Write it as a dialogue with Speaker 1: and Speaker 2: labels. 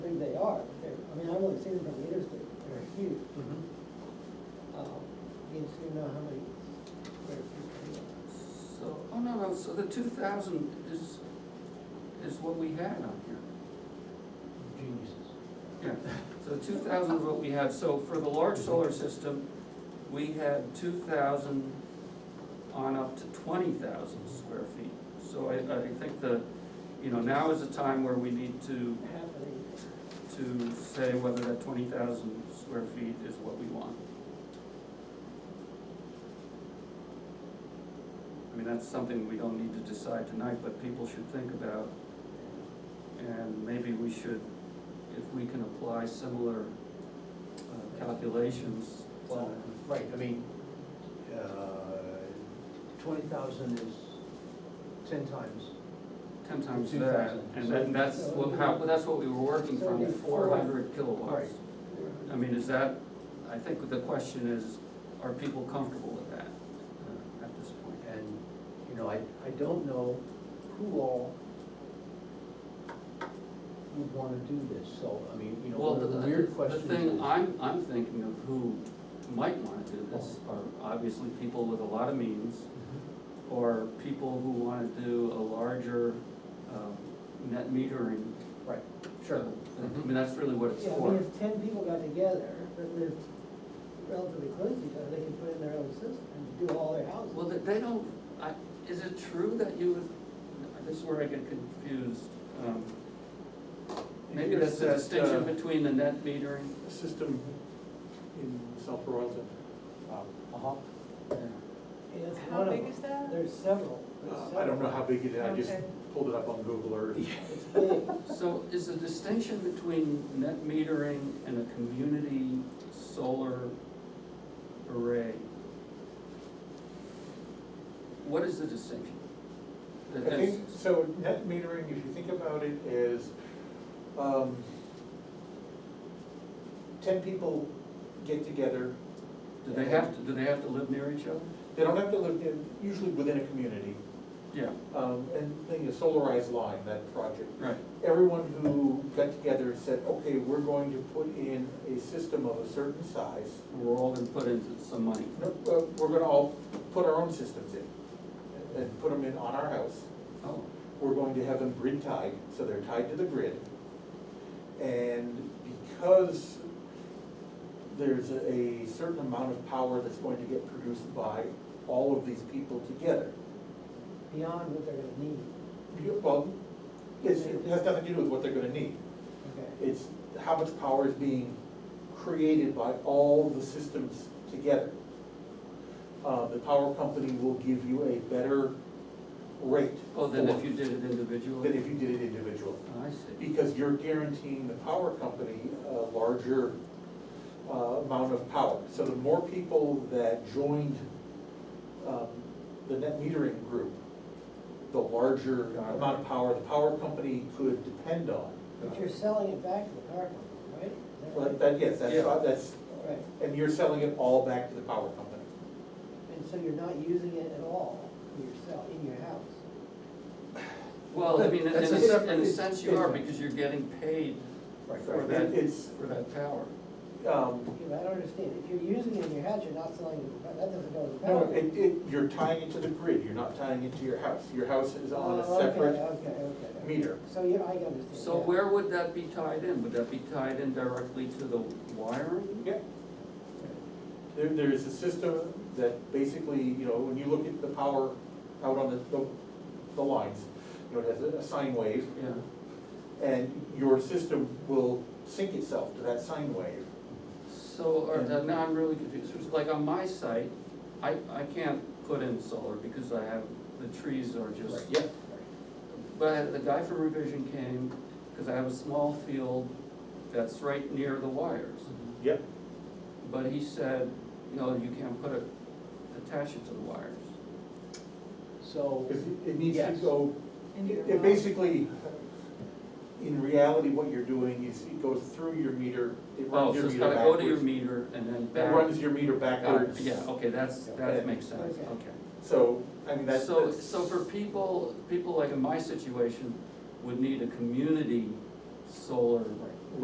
Speaker 1: two from the interstate, they're huge. Um, Means you know how many square feet they are.
Speaker 2: So, oh no, no, so the two thousand is, is what we had on here.
Speaker 3: Geniuses.
Speaker 2: Yeah, so two thousand is what we had, so for the large solar system, we had two thousand on up to twenty thousand square feet. So I, I think the, you know, now is the time where we need to,
Speaker 1: half an acre.
Speaker 2: to say whether that twenty thousand square feet is what we want. I mean, that's something we don't need to decide tonight, but people should think about. And maybe we should, if we can apply similar uh, calculations. to-
Speaker 3: Well, right, I mean, uh, twenty thousand is ten times.
Speaker 2: Ten times
Speaker 3: Two
Speaker 2: that,
Speaker 3: thousand.
Speaker 2: and then that's what, how, that's what we were working from,
Speaker 1: Seventy four.
Speaker 2: four hundred kilowatts.
Speaker 3: Right.
Speaker 2: I mean, is that, I think the question is, are people comfortable with that uh, at this point?
Speaker 3: And, you know, I, I don't know who all would wanna do this, so, I mean, you know,
Speaker 2: Well,
Speaker 3: one
Speaker 2: the,
Speaker 3: of the weird
Speaker 2: the
Speaker 3: questions.
Speaker 2: thing,
Speaker 3: is-
Speaker 2: I'm, I'm thinking of who might wanna do this
Speaker 3: Oh.
Speaker 2: are obviously people with a lot of means
Speaker 3: Mhm.
Speaker 2: or people who wanna do a larger, um, net metering.
Speaker 3: Right, sure. Mm-hmm.
Speaker 2: I mean, that's really what it's
Speaker 1: Yeah, I mean,
Speaker 2: for.
Speaker 1: if ten people got together that lived relatively close to each other, they could put in their own system and do all their houses.
Speaker 2: Well, they, they don't, I, is it true that you, would- this is where I get confused. um, Maybe that's the
Speaker 4: There's that, uh,
Speaker 2: distinction between the net metering.
Speaker 4: system in South Burlington. um,
Speaker 3: Uh-huh.
Speaker 1: And that's
Speaker 5: How
Speaker 1: one of
Speaker 5: big
Speaker 1: them.
Speaker 5: is that?
Speaker 1: There's several, there's
Speaker 4: uh, I don't know how big it is, I just
Speaker 5: Okay.
Speaker 4: pulled it up on Google Earth.
Speaker 1: several. It's big.
Speaker 2: So is the distinction between net metering and a community solar array? What is the distinction?
Speaker 4: I think, so net metering, if you think about it, is, um, ten people get together.
Speaker 2: Do they have to, do they have to live near each other?
Speaker 4: They don't have to live in, usually within a community,
Speaker 2: Yeah,
Speaker 4: um, and then you solarize line, that project.
Speaker 2: right.
Speaker 4: Everyone who got together and said, okay, we're going to put in a system of a certain size.
Speaker 2: We're all gonna put in some money.
Speaker 4: No, uh, We're gonna all put our own systems in, and put them in on our house.
Speaker 2: Oh,
Speaker 4: We're going to have them grid tied, so they're tied to the grid. And because there's a certain amount of power that's going to get produced by all of these people together.
Speaker 1: Beyond what they're gonna need,
Speaker 4: you- Well, it's, it has nothing to do with what they're gonna need.
Speaker 1: okay.
Speaker 4: It's how much power is being created by all the systems together. Uh, the power company will give you a better rate.
Speaker 2: oh, then if
Speaker 4: for-
Speaker 2: you did it
Speaker 4: Than
Speaker 2: individually? Oh,
Speaker 4: if you did it individually,
Speaker 2: I see.
Speaker 4: because you're guaranteeing the power company a larger, uh, amount of power. So the more people that joined, um, the net metering group, the larger
Speaker 2: Got it.
Speaker 4: amount of power the power company could depend on.
Speaker 1: But you're selling it back to the car company, right? Is that
Speaker 4: Well,
Speaker 1: right?
Speaker 4: that, yes, that's,
Speaker 2: Yeah.
Speaker 4: that's,
Speaker 1: Right,
Speaker 4: and you're selling it all back to the power company.
Speaker 1: and so you're not using it at all for yourself, in your house.
Speaker 2: Well, I mean, in a,
Speaker 3: That's a
Speaker 2: sen-
Speaker 3: separate-
Speaker 2: in a sense you are, because you're getting paid
Speaker 3: Right,
Speaker 2: for
Speaker 4: It-
Speaker 2: that,
Speaker 4: It's,
Speaker 2: for that power.
Speaker 4: um,
Speaker 1: Yeah, but I don't understand, if you're using it in your house, you're not selling it, that doesn't go to the
Speaker 4: no,
Speaker 1: power.
Speaker 4: it, it, you're tying it to the grid, you're not tying it to your house. Your house is on a
Speaker 1: Oh, okay,
Speaker 4: separate
Speaker 1: Okay, okay, okay.
Speaker 4: meter.
Speaker 1: So, yeah, I understand.
Speaker 2: So
Speaker 1: yeah.
Speaker 2: where would that be tied in? Would that be tied in directly to the wiring?
Speaker 4: Yeah. There, there is a system that basically, you know, when you look at the power out on the, the, the lines, you know, it has a- a sine wave,
Speaker 2: Yeah.
Speaker 4: and your system will sync itself to that sine wave.
Speaker 2: So, or, uh, now I'm really confused, It's like on my site, I, I can't put in solar because I have, the trees are just.
Speaker 4: Yeah,
Speaker 2: But the guy from revision came, cause I have a small field that's right near the wires.
Speaker 4: yeah.
Speaker 2: But he said, no, you can't put it, attach it to the wires.
Speaker 3: so.
Speaker 4: Because it it needs to
Speaker 3: Yes.
Speaker 4: go,
Speaker 5: Into your
Speaker 4: it
Speaker 5: house.
Speaker 4: basically, in reality, what you're doing is it goes through your meter, it
Speaker 2: Oh, so
Speaker 4: runs your
Speaker 2: it's
Speaker 4: meter
Speaker 2: gotta go to your
Speaker 4: backwards.
Speaker 2: meter and then
Speaker 4: It
Speaker 2: back.
Speaker 4: runs your meter
Speaker 2: Uh,
Speaker 4: backwards.
Speaker 2: Yeah, okay, that's,
Speaker 4: Yeah.
Speaker 2: that makes sense,
Speaker 1: Okay.
Speaker 2: okay.
Speaker 4: So, I mean, that's.
Speaker 2: So,
Speaker 4: that's-
Speaker 2: so for people, people like in my situation would need a community solar